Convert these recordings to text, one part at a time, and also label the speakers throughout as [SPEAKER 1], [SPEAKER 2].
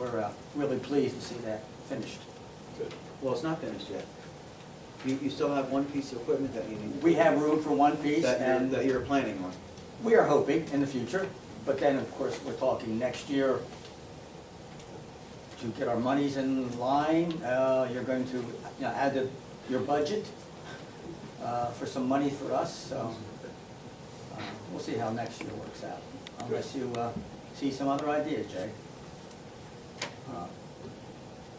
[SPEAKER 1] uh, really pleased to see that finished.
[SPEAKER 2] Good.
[SPEAKER 3] Well, it's not finished yet. You, you still have one piece of equipment that you need.
[SPEAKER 1] We have room for one piece
[SPEAKER 3] That you're,
[SPEAKER 1] and
[SPEAKER 3] that you're planning on.
[SPEAKER 1] we are hoping in the future, but then, of course, we're talking next year to get our monies in line, uh, you're going to, you know, add to your budget, uh, for some money for us, so, uh, we'll see how next year works out, unless you, uh, see some other ideas, Jay. Uh,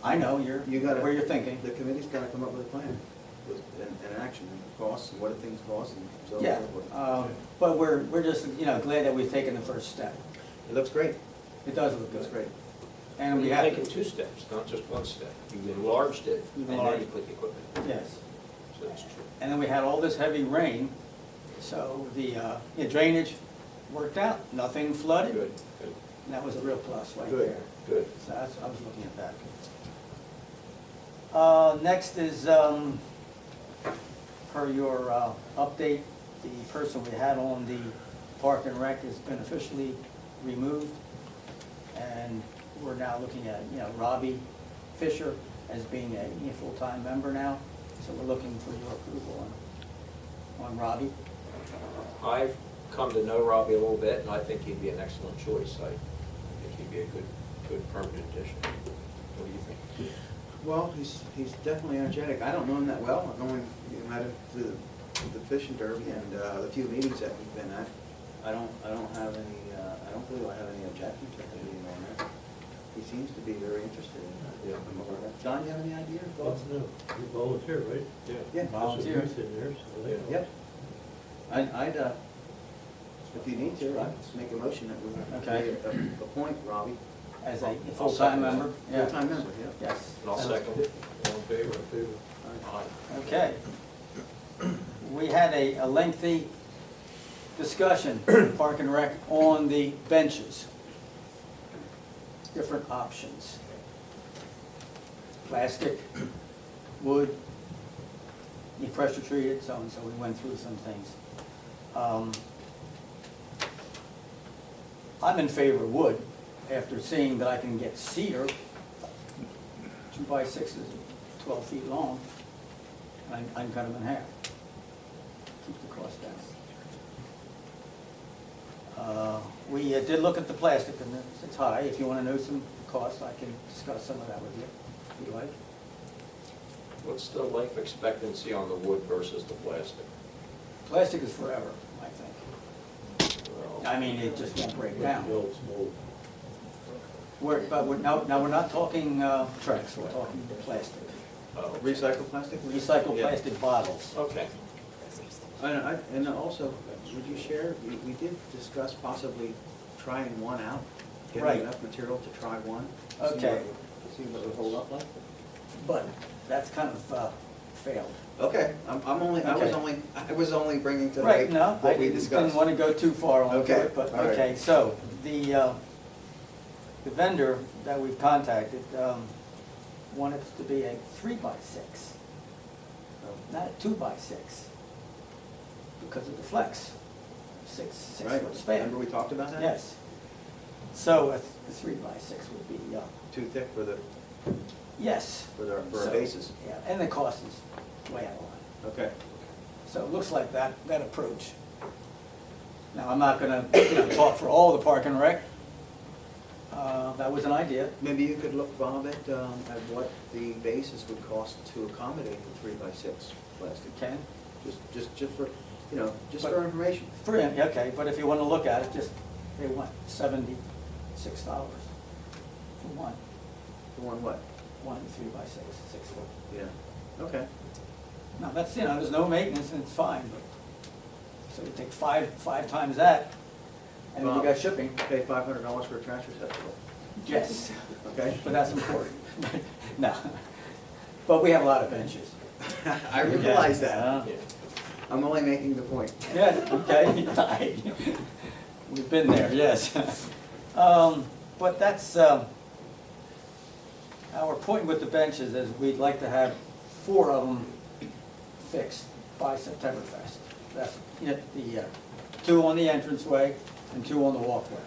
[SPEAKER 1] I know you're,
[SPEAKER 3] You gotta.
[SPEAKER 1] where you're thinking.
[SPEAKER 3] The committee's gotta come up with a plan, with, and, and an action, and the costs, and what do things cost, and so on
[SPEAKER 1] Yeah,
[SPEAKER 3] and so forth.
[SPEAKER 1] um, but we're, we're just, you know, glad that we've taken the first step.
[SPEAKER 3] It looks great,
[SPEAKER 1] It does look
[SPEAKER 3] it looks
[SPEAKER 1] good.
[SPEAKER 3] great.
[SPEAKER 1] And we
[SPEAKER 2] You've
[SPEAKER 1] have,
[SPEAKER 2] taken two steps, not just one step. You've enlarged it, and then you
[SPEAKER 1] Enlarged.
[SPEAKER 2] put the equipment. in.
[SPEAKER 1] yes.
[SPEAKER 2] So that's true.
[SPEAKER 1] And then we had all this heavy rain, so the uh, yeah, drainage worked out, nothing flooded.
[SPEAKER 2] Good, good,
[SPEAKER 1] And that was a real plus right
[SPEAKER 3] Good.
[SPEAKER 1] there.
[SPEAKER 2] good.
[SPEAKER 1] So that's, I was looking at that. Uh, next is, um, per your, uh, update, the person we had on the Park and Rec has been officially removed. And we're now looking at, you know, Robbie Fisher as being a you know, full-time member now. So we're looking for your approval on, on Robbie.
[SPEAKER 2] I've come to know Robbie a little bit, and I think he'd be an excellent choice. I think he'd be a good, good permanent addition. What do you think?
[SPEAKER 3] Well, he's, he's definitely energetic. I don't know him that well. I've only met him through the fishing derby and uh, the few meetings that we've been at. I don't, I don't have any, uh, I don't believe I have any objections at the meeting on that. He seems to be very interested in
[SPEAKER 2] Yeah.
[SPEAKER 3] it. John, you have any idea or
[SPEAKER 4] Well,
[SPEAKER 3] thoughts?
[SPEAKER 4] no, you volunteer, right? Yeah.
[SPEAKER 3] Yeah.
[SPEAKER 1] Volunteer.
[SPEAKER 4] There's a use in there, so they-
[SPEAKER 3] Yep. I'd, I'd, uh, if you need to, I'd make a motion that we
[SPEAKER 1] Okay.
[SPEAKER 3] uh, appoint Robbie.
[SPEAKER 1] As a
[SPEAKER 2] I'll
[SPEAKER 1] full-time
[SPEAKER 2] second that.
[SPEAKER 1] member. Yeah.
[SPEAKER 3] Full-time member, yeah.
[SPEAKER 1] Yes.
[SPEAKER 2] And I'll second it.
[SPEAKER 4] All in favor? In favor.
[SPEAKER 2] Aye.
[SPEAKER 1] Okay. We had a a lengthy discussion, Park and Rec, on the benches. Different options. Plastic, wood, you pressure treat it, so and so, we went through some things. Um, I'm in favor of wood, after seeing that I can get cedar, two by sixes, twelve feet long, and I, I can cut them in half. Keep the cost down. Uh, We uh, did look at the plastic, and it's- it's high, if you wanna know some cost, I can discuss some of that with you, if you like.
[SPEAKER 2] What's the life expectancy on the wood versus the plastic?
[SPEAKER 1] Plastic is forever, I think.
[SPEAKER 2] Well,
[SPEAKER 1] I mean, it just won't break down.
[SPEAKER 4] The old smoke.
[SPEAKER 1] We're, but we're, now, now, we're not talking, uh, tracks, we're talking plastic.
[SPEAKER 2] oh,
[SPEAKER 3] Recycle plastic?
[SPEAKER 1] Recycled
[SPEAKER 2] Yeah.
[SPEAKER 1] plastic bottles.
[SPEAKER 2] Okay.
[SPEAKER 3] And I, and also, would you share, we, we did discuss possibly trying one out,
[SPEAKER 1] Right.
[SPEAKER 3] getting enough material to try one. see what
[SPEAKER 1] Okay.
[SPEAKER 3] it- See what it would hold up like.
[SPEAKER 1] But that's kind of, uh, failed.
[SPEAKER 3] Okay, I'm, I'm only, I was
[SPEAKER 1] Okay.
[SPEAKER 3] only, I was only bringing to
[SPEAKER 1] Right,
[SPEAKER 3] light
[SPEAKER 1] no, I
[SPEAKER 3] what we
[SPEAKER 1] didn't
[SPEAKER 3] discussed.
[SPEAKER 1] didn't want to go too far on
[SPEAKER 3] Okay,
[SPEAKER 1] it, but,
[SPEAKER 3] all right.
[SPEAKER 1] okay, so, the, uh, the vendor that we've contacted, um, wanted to be a three by six,
[SPEAKER 3] Oh,
[SPEAKER 1] not a two by six, because of the flex, six, six
[SPEAKER 3] Right,
[SPEAKER 1] foot span.
[SPEAKER 3] remember we talked about that?
[SPEAKER 1] Yes. So a, th- a three by six would be, uh,
[SPEAKER 3] Too thick for the,
[SPEAKER 1] yes.
[SPEAKER 3] for the, for
[SPEAKER 1] So,
[SPEAKER 3] our bases.
[SPEAKER 1] Yeah, and the cost is way out of line.
[SPEAKER 3] Okay.
[SPEAKER 1] So it looks like that, that approach. Now, I'm not gonna, you know, talk for all the park and rec. Uh, that was an idea.
[SPEAKER 3] Maybe you could look, Bob, at, um, at what the bases would cost to accommodate the three by six plastic.
[SPEAKER 1] Ken?
[SPEAKER 3] Just, just, just for, you know, just
[SPEAKER 1] But-
[SPEAKER 3] for information.
[SPEAKER 1] Three, okay, but if you wanna look at it, just, they want seventy-six dollars for one,
[SPEAKER 3] The one what?
[SPEAKER 1] one three by six, six foot.
[SPEAKER 3] Yeah. Okay.
[SPEAKER 1] Now, that's, you know, there's no maintenance and it's fine, but, so you take five, five times that, and then you
[SPEAKER 3] Well-
[SPEAKER 1] got shipping.
[SPEAKER 3] Pay five hundred dollars for a trash receptacle,
[SPEAKER 1] Yes.
[SPEAKER 3] okay?
[SPEAKER 1] But that's important. No. But we have a lot of benches.
[SPEAKER 3] I realize that.
[SPEAKER 1] Yeah.
[SPEAKER 2] Yeah.
[SPEAKER 3] I'm only making the point.
[SPEAKER 1] Yes, okay. We've been there, yes. Um, But that's, um, our point with the benches is we'd like to have four of them fixed by September first. That's, you know, the, uh, two on the entranceway and two on the walkway.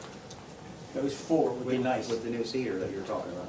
[SPEAKER 1] Those four would be
[SPEAKER 3] With-
[SPEAKER 1] nice.
[SPEAKER 3] With the new cedar that you're talking about.